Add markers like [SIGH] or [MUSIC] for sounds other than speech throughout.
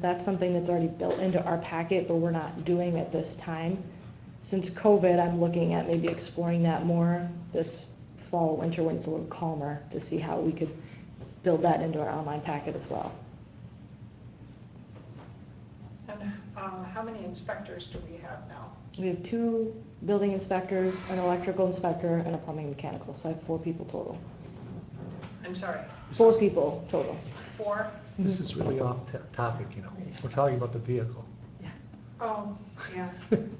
That's something that's already built into our packet, but we're not doing at this time. Since COVID, I'm looking at maybe exploring that more this fall, winter, when it's a little calmer, to see how we could build that into our online packet as well. And uh, how many inspectors do we have now? We have two building inspectors, an electrical inspector, and a plumbing mechanical, so I have four people total. I'm sorry, Four people total. four? This is really off to- topic, you know, we're talking about the vehicle. Oh, yeah,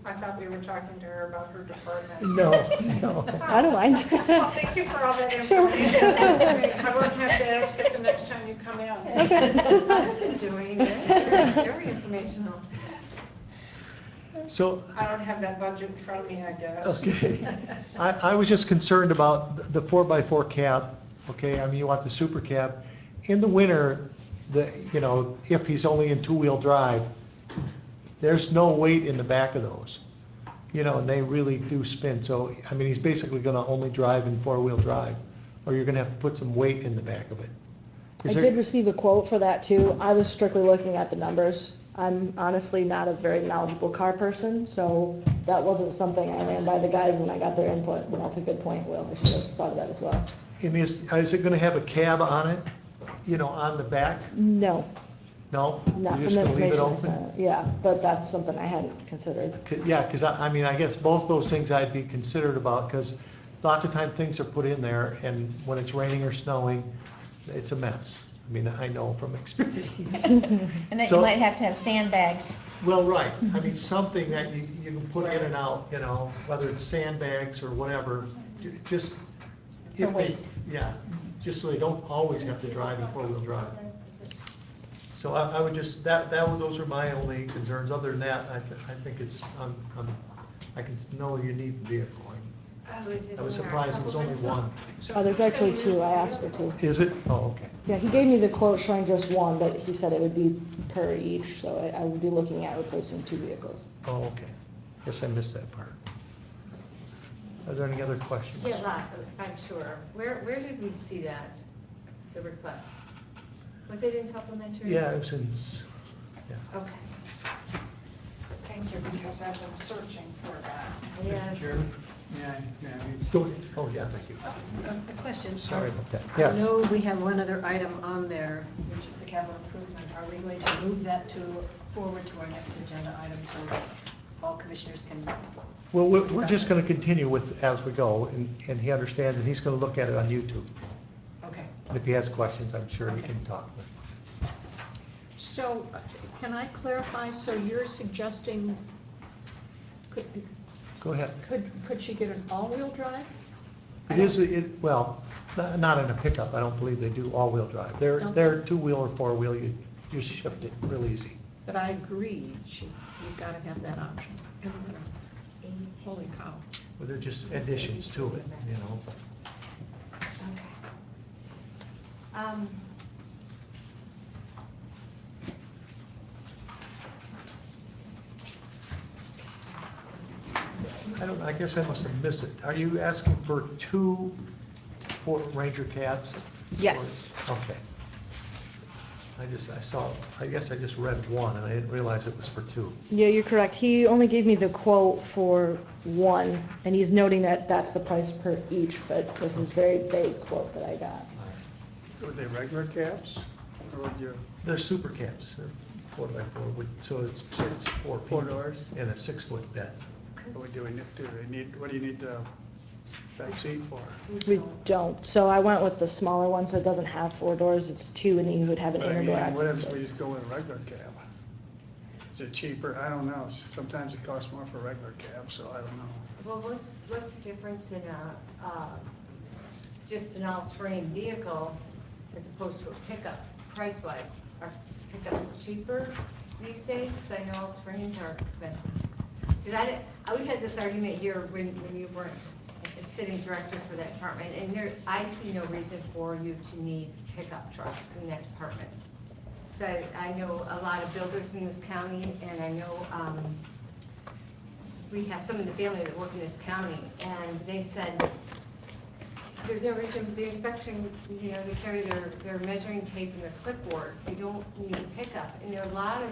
I thought we were talking to her about her department. [LAUGHS] No, no. I don't mind. [LAUGHS] Well, [LAUGHS] thank you for all that Sure. information. I won't have to ask it the next time you come in. [LAUGHS] I was enjoying it, very, very informational. So, I don't have that budget in front of me, I guess. okay, I, I was just concerned about th- the four-by-four cab, okay, I mean, you want the super cab. In the winter, the, you know, if he's only in two-wheel drive, there's no weight in the back of those. You know, and they really do spin, so, I mean, he's basically gonna only drive in four-wheel drive, or you're gonna have to put some weight in the back of it. I Is there- did receive a quote for that too. I was strictly looking at the numbers. I'm honestly not a very knowledgeable car person, so that wasn't something I ran by the guys when I got their input, but that's a good point, Will. I should have thought of that as well. And is, is it gonna have a cab on it, you know, on the back? No, No? not from You're just the gonna leave it information I open? sent. Yeah, but that's something I hadn't considered. 'Cause- Yeah, because I, I mean, I guess both those things I'd be considered about, because lots of time things are put in there, and when it's raining or snowing, it's a mess. I mean, I know from [LAUGHS] experience. And that So- you might have to have sandbags. Well, right, I Mm-hmm. mean, something that you, you can put in and out, you know, whether it's sandbags or whatever, ju- just. For if they- weight. Yeah, just so they don't always have to drive in four-wheel drive. So I, I would just, that, that, was- those are my only concerns, other than that, I, thi- I think it's, I'm, I'm, I can know you need the vehicle. I- I was surprised it was only one. So Oh, there's who's gonna actually use two. the I asked for vehicle? two. Is it? Oh, okay. Yeah, he gave me the quote showing just one, but he said it would be per each, so I, I would be looking at replacing two vehicles. Oh, okay. Guess I missed that part. Are there any other questions? Yeah, right, I'm sure. Where, where did we see that, the request? Was it in supplementary? Yeah, it was in, s- yeah. Okay. Thank you, because I've been searching for that. Yes. Yeah, yeah. Go ahead. Oh, yeah, thank you. Uh, A question. Um, Sorry about that. I Yes. know we have one other item on there, which is the capital improvement. Are we going to move that to, forward to our next agenda item so that all commissioners can? Well, we're, we're just gonna continue with, as we go, and, and he understands, and he's gonna look at it on YouTube. Okay. And if he has questions, I'm sure he can talk with. So, uh, can I clarify, so you're suggesting, could, Go ahead. could, could she get an all-wheel drive? It is, it, well, n- not in a pickup, I don't believe they do all-wheel drive. They're, Okay. they're two-wheel or four-wheel, you, you shift it real easy. But I agree, she, you've got to have that option. Holy cow. Well, they're just additions to it, you know? Um, I don't, I guess I must have missed it. Are you asking for two Ford Ranger cabs? Yes. Okay. I just, I saw, I guess I just read one, and I didn't realize it was for two. Yeah, you're correct. He only gave me the quote for one, and he's noting that that's the price per each, but this is very vague quote that I got. Were they regular caps? Or would you, They're super cabs, they're four by four, with- so it's, it's four people. Four doors? And a six-foot bed. or do we need, do they need, what do you need the back seat for? We don't, so I went with the smaller one, so it doesn't have four doors, it's two, and then you would have an But I inner mean, door What access. if we just go with a regular cab? Is it cheaper? I don't know. Sometimes it costs more for a regular cab, so I don't know. Well, what's, what's the difference in a, uh, just an all-terrain vehicle as opposed to a pickup, price-wise? Are pickups cheaper these days? Because I know all-terrains are expensive. Because I, didn't- I- we had this argument here when, when you weren't a sitting director for that department, and there, I see no reason for you to need pickup trucks in that department. So I, I know a lot of builders in this county, and I know, um, we have some in the family that work in this county, and they said, there's no reason for the inspection, you know, they carry their, their measuring tape and their clipboard, they don't need a pickup. And there are a lot of